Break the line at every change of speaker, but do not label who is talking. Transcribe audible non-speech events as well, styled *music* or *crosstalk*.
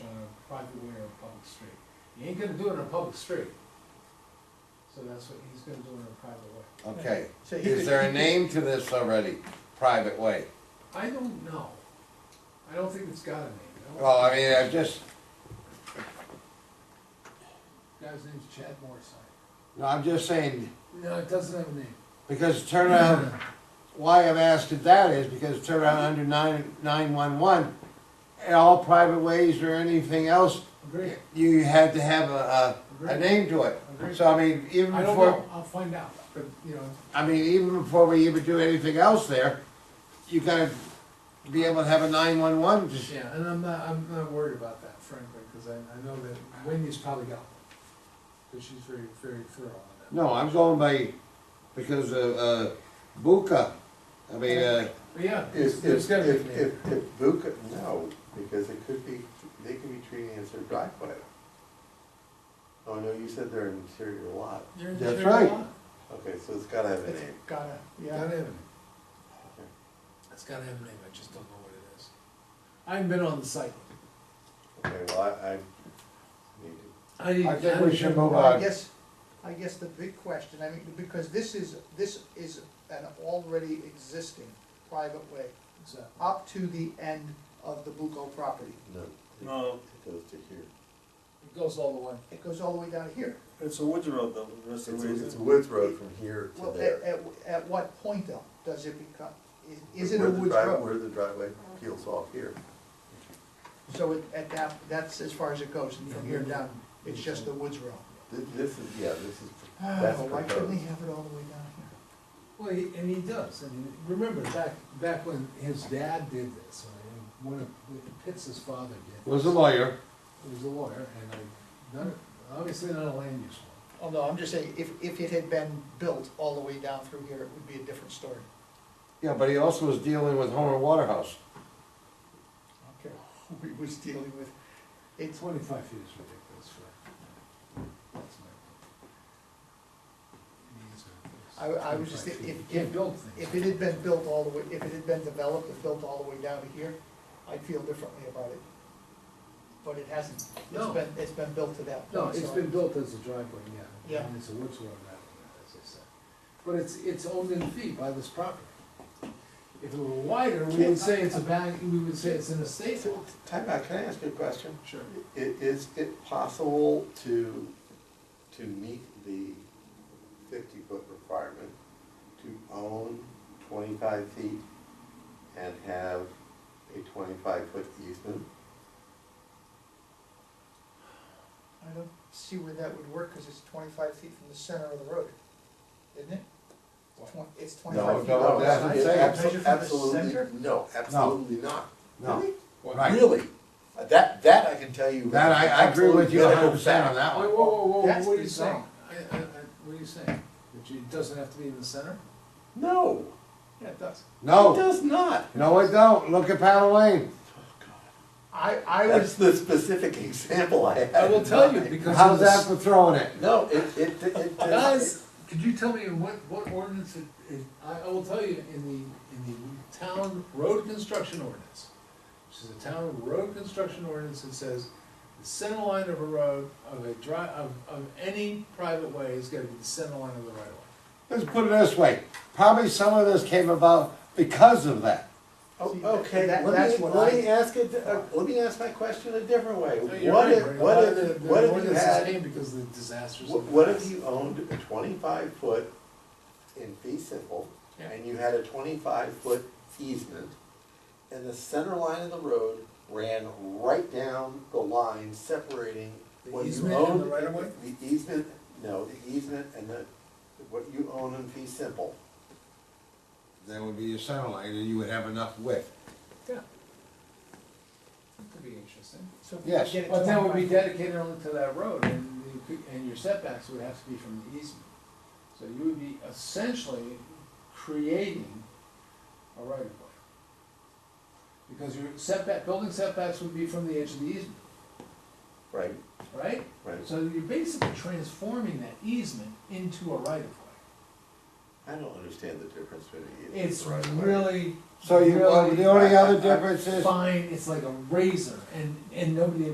uh, public street. You ain't gonna do it on a public street. So that's what he's gonna do in a private way.
Okay,
So you
is
could-
there
you
a
could-
name to this already, private way?
I don't know. I don't think it's got a name. I don't-
Well, I mean, I just,
Guy's name's Chad Morrissey.
no, I'm just saying,
No, it doesn't have a name.
because turnaround, why I'm asking that is because turnaround under nine, nine-one-one, all private ways or anything else,
Agree,
you had to have a, a, a
Agreed.
name to it.
Agreed.
So I mean, even
I don't
before,
know, I'll find out, but, you know,
I mean, even before we even do anything else there, you gotta be able to have a nine-one-one, just,
yeah, and I'm not, I'm not worried about that frankly, cause I, I know that Wendy's probably got one. Cause she's very, very thorough on that.
no, I'm going by, because of, uh, Buka, I mean, uh,
But yeah, there's,
If,
there's
if,
gotta be a
if,
name.
if, if Buca, no, because it could be, they could be treating it as their driveway. Oh, no, you said they're an interior lot.
You're in
That's
favor
right.
of what?
Okay, so it's gotta have a
It's
name.
gotta, yeah. Gotta have a name. It's gotta have a name, I just don't know what it is. I haven't been on the site.
Okay, well, I, I need to
I need-
I think
need
we
to-
should move
I
on.
guess, I guess the big question, I mean, because this is, this is an already existing private way
Exactly.
up to the end of the Bucco property.
No.
No.
It goes to here.
It goes all the way.
It goes all the way down here.
It's a woods road though, that's the
It's, it's
reason.
Woods Road from here to
Well, at,
there.
at, at what point though, does it become, i- is it
Where
a
the
woods
drive-
road?
Where the driveway peels off here.
So it- at that, that's as far as it goes, and from here
Mm-hmm.
down, it's just the woods road.
This, this is, yeah, this is, *sighs* that's
Well, Oh, why couldn't
proposed.
they have it all the way down here?
Well, he- and he does, and remember back, back when his dad did this, or one of, Pitts's father did.
was a
this.
lawyer.
He was a lawyer, and I, not, obviously not a land use one.
Oh, no, I'm just saying, if, if it had been built all the way down through here, it would be a different story.
Yeah, but he also was dealing with Homer Waterhouse.
Okay. *laughs* We was dealing with, it's,
Twenty-five feet is ridiculous for, that's my. opinion. These are-
I, I was just,
25
if,
feet. You
if,
can't build things.
if it had been built all the way, if it had been developed and built all the way down to here, I'd feel differently about it. But it hasn't, it's
No.
been, it's been built to that
No,
point,
it's
so-
been built as a driveway, yeah.
Yeah.
And it's a woods road now, as I said. But it's, it's owned in fee by this property. If it were wider, we would say it's a back, we would say it's an estate lot.
Time out, can I ask you a question?
Sure.
I- Is it possible to, to meet the fifty-foot requirement to own twenty-five feet and have a twenty-five-foot easement?
I don't see where that would work, cause it's twenty-five feet from the center of the road, isn't it? Twen- It's
No,
twenty-five feet.
no,
from the
Oh, that's-
side.
saying.
Measure from
Abso-
the center?
Absolutely, no, absolutely not.
No,
Really?
right.
Really? Uh, That, that I can tell you.
That, I, I agree with you
absolute
hundred percent on
medical fact.
that
Whoa,
one.
whoa, whoa, whoa,
That's
what are you saying?
bizarre.
I, I, I, what are you saying? That it doesn't have to be in the center?
No,
Yeah, it does.
it
No,
does not.
no, it don't. Look at Paddle Lane.
I, I
That's
was,
the specific *laughs* example I had.
I will
in
tell you
mind.
because of
How's that
this.
for throwing it?
No, it, it, it- it.
Guys, could you tell me in what, what ordinance it, it, I, I will tell you, in the, in the town road construction ordinance, which is a town road construction ordinance that says the center line of a road, of a dri, of, of any private way is gonna be the center line of the right of way.
Let's put it this way, probably some of this came about because of that.
Oh,
See,
Okay,
that-
let
that's
me,
what
let
I-
me ask it, uh, let me ask my question a different way.
So you're
What
right,
if,
Rick, a
what
lot of the-
if,
the
what if you
ordinances
had,
came because of the disasters.
wh-
of the
what if
past.
you owned a twenty-five foot in fee simple,
Yeah.
and you had a twenty-five foot easement, and the center line of the road ran right down the line separating
The
what you
easement and
owned.
the right of way?
The easement, no, the easement and the, what you own in fee simple.
That would be your center line, and you would have enough width.
Yeah. That could be interesting.
so if we
Yes.
get it
But that would be
25
dedicated only to that road, and you could, and your setbacks would have to be from the easement. So you would be essentially creating a right of way. Because your setback, building setbacks would be from the edge of the easement,
Right.
right?
Right.
So you're basically transforming that easement into a right of way.
I don't understand the difference between the easement
It's
and the right of way.
really,
So you, well,
Really?
the only other difference is.
fine, it's like a razor, and, and nobody